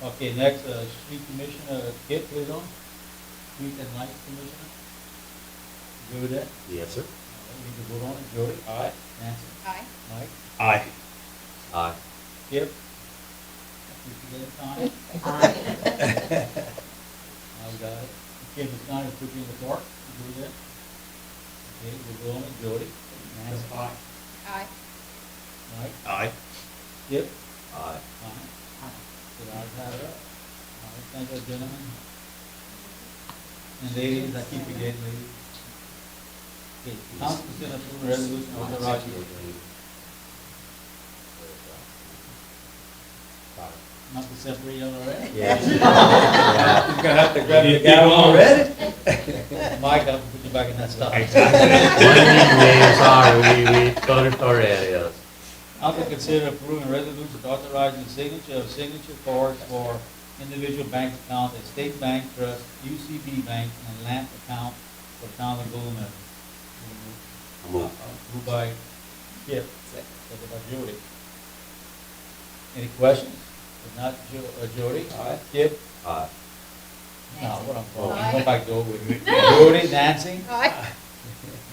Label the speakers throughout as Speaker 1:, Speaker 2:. Speaker 1: Okay, next, uh, street commissioner, Kip is on, street and light commissioner. Joey there,
Speaker 2: Yes, sir.
Speaker 1: we can vote on it, Joey,
Speaker 2: Aye.
Speaker 1: Nancy,
Speaker 3: Aye.
Speaker 1: Mike,
Speaker 2: Aye. Aye.
Speaker 1: Kip. We can get it signed. I've got it. Okay, the sign is put in the park, Joey there. Okay, we vote on it, Joey, Nancy,
Speaker 3: Aye.
Speaker 1: Mike,
Speaker 2: Aye.
Speaker 1: Kip,
Speaker 2: Aye.
Speaker 1: aye. So the ayes have it. All right, thank you, gentlemen. And ladies, I keep forgetting ladies. Okay, council consider approval resolution authorizing Not to separate y'all already?
Speaker 2: Yes.
Speaker 1: You're gonna have to grab your gavel already? Mike, I'll put you back in that stuff.
Speaker 2: Exactly. Sorry, we, we got it already, yes.
Speaker 1: Council consider approving resolution authorizing signature of signature cards for individual bank accounts at State Bank Trust, UCB Bank, and LAMP account for town of Golden. Mile. Moved by Kip, second by Jody. Any questions? If not, Jo- uh, Jody? Aye. Kip?
Speaker 2: Aye.
Speaker 1: No, what Oh, I'm
Speaker 3: Aye.
Speaker 1: calling, go back to over with. Jody, Nancy,
Speaker 3: Aye.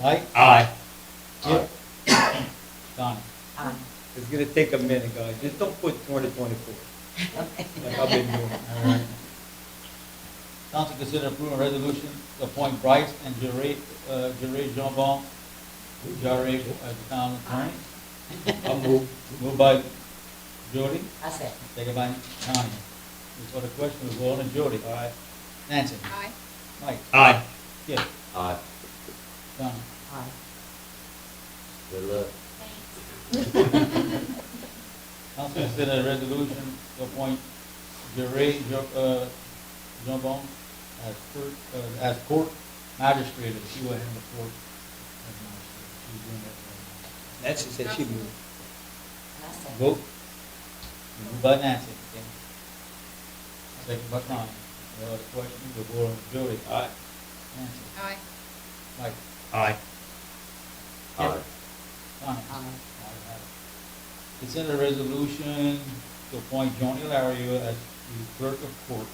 Speaker 1: Mike,
Speaker 2: Aye.
Speaker 1: Kip, Donnie.
Speaker 4: It's gonna take a minute, guys, just don't put twenty twenty-four. Like I've been doing.
Speaker 1: All right. Council consider approving resolution to appoint Bryce and Jerry, uh, Jerry Jeanbon, Jerry as town attorney.
Speaker 4: I'll move.
Speaker 1: Moved by Jody,
Speaker 5: I said,
Speaker 1: second by Donnie. Before the question, we go on to Jody. Aye. Nancy,
Speaker 3: Aye.
Speaker 1: Mike,
Speaker 2: Aye.
Speaker 1: Kip,
Speaker 2: Aye.
Speaker 1: Donnie.
Speaker 5: aye.
Speaker 2: Good luck.
Speaker 1: Council consider a resolution to appoint Jerry Jo- uh, Jeanbon as court, uh, as court magistrate, if she were in the court. as magistrate. She's doing that right
Speaker 4: Nancy said she moved.
Speaker 5: I said,
Speaker 1: now. Vote. Moved by Nancy, okay? Second by Connie. No other questions, the board on Jody. Aye. Nancy,
Speaker 3: Aye.
Speaker 1: Mike,
Speaker 2: Aye. Aye.
Speaker 1: Connie.
Speaker 5: aye.
Speaker 1: Ayes have it. Consider a resolution to appoint Joni Lario as the clerk of court.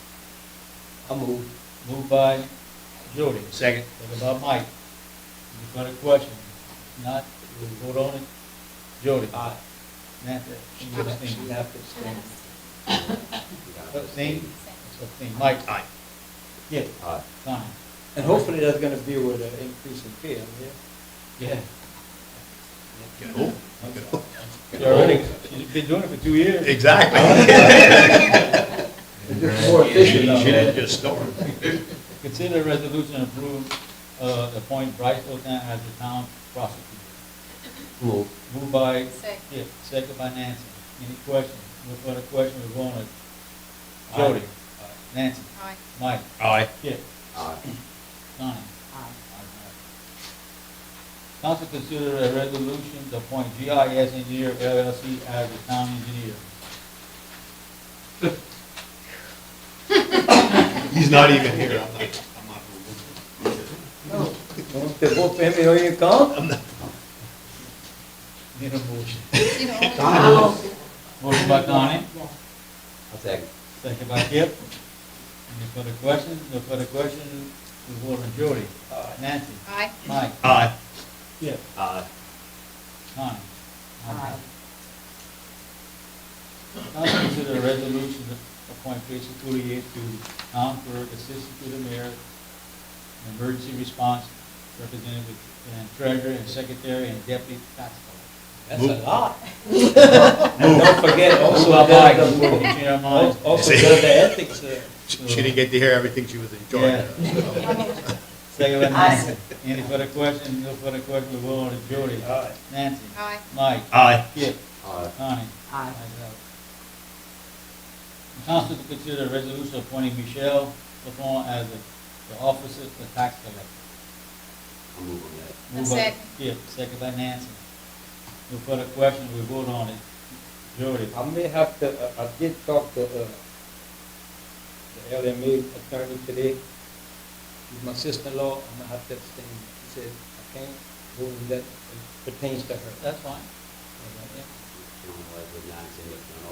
Speaker 4: I'll move.
Speaker 1: Moved by Jody.
Speaker 4: Second.
Speaker 1: Second by Mike. Any further questions? If Not, we'll vote on it. Jody? Aye. Nancy? You
Speaker 4: You
Speaker 1: abstain.
Speaker 4: have to abstain.
Speaker 1: Abstain? Abstain. Mike?
Speaker 2: Aye.
Speaker 1: Yeah.
Speaker 2: Aye.
Speaker 1: Fine.
Speaker 4: And hopefully that's gonna be with an increase in pay, yeah?
Speaker 1: Yeah.
Speaker 2: Oh,
Speaker 1: She already, she's been doing it for two years.
Speaker 2: Exactly.
Speaker 4: It's just more efficient now, right?
Speaker 2: just started.
Speaker 1: Consider a resolution to approve, uh, appoint Bryce Otan as the town prosecutor.
Speaker 2: Move.
Speaker 1: Moved by
Speaker 3: Second.
Speaker 1: Kip, second by Nancy. Any questions? No further questions, we're going to
Speaker 2: Aye.
Speaker 1: Jody. Nancy?
Speaker 3: Aye.
Speaker 1: Mike?
Speaker 2: Aye.
Speaker 1: Kip?
Speaker 2: Aye.
Speaker 1: Donnie?
Speaker 5: Aye.
Speaker 1: Council consider a resolution to appoint GIS engineer LLC as the town engineer.
Speaker 2: He's not even here. I'm not, I'm not.
Speaker 4: Vamos ter bom prêmio hoje então?
Speaker 1: Need a motion.
Speaker 3: You know,
Speaker 1: Motion by Donnie,
Speaker 5: Yeah.
Speaker 2: I'll second.
Speaker 1: second by Kip. Any further questions? No further questions? We vote on Jody. Nancy.
Speaker 3: Aye.
Speaker 1: Mike.
Speaker 2: Aye.
Speaker 1: Kip.
Speaker 2: Aye.
Speaker 1: Connie.
Speaker 5: Aye.
Speaker 1: Council consider a resolution to appoint Tracy Coutier to town clerk, assistant to the mayor, and emergency response representative, and treasurer, and secretary, and deputy tax collector.
Speaker 4: That's a lot. And don't forget, also
Speaker 1: Move by
Speaker 4: does
Speaker 1: Mike,
Speaker 4: the,
Speaker 1: did you hear mine?
Speaker 4: al- also does the ethics, uh,
Speaker 6: She she didn't get to hear everything she was enjoying.
Speaker 1: Second by
Speaker 5: Aye.
Speaker 1: Nancy. Any further questions? No further questions, we will on to Jody.
Speaker 4: Aye.
Speaker 1: Nancy.
Speaker 3: Aye.
Speaker 1: Mike.
Speaker 2: Aye.
Speaker 1: Kip.
Speaker 2: Aye.
Speaker 1: Connie.
Speaker 5: Aye.
Speaker 1: The Council to consider a resolution appointing Michelle LaFawn as the the officer for tax collector.
Speaker 2: I'll move on that.
Speaker 1: Moved by
Speaker 3: Second.
Speaker 1: Skip, second by Nancy. No further questions, we vote on it. Jody?
Speaker 4: I may have to, uh, I did talk to, uh, the LMA attorney today. He's my sister-in-law, I'm gonna have to abstain. He said, I can't do that, it pertains to her.
Speaker 1: That's fine.
Speaker 4: Okay.
Speaker 2: You know, like, with Nancy, you know,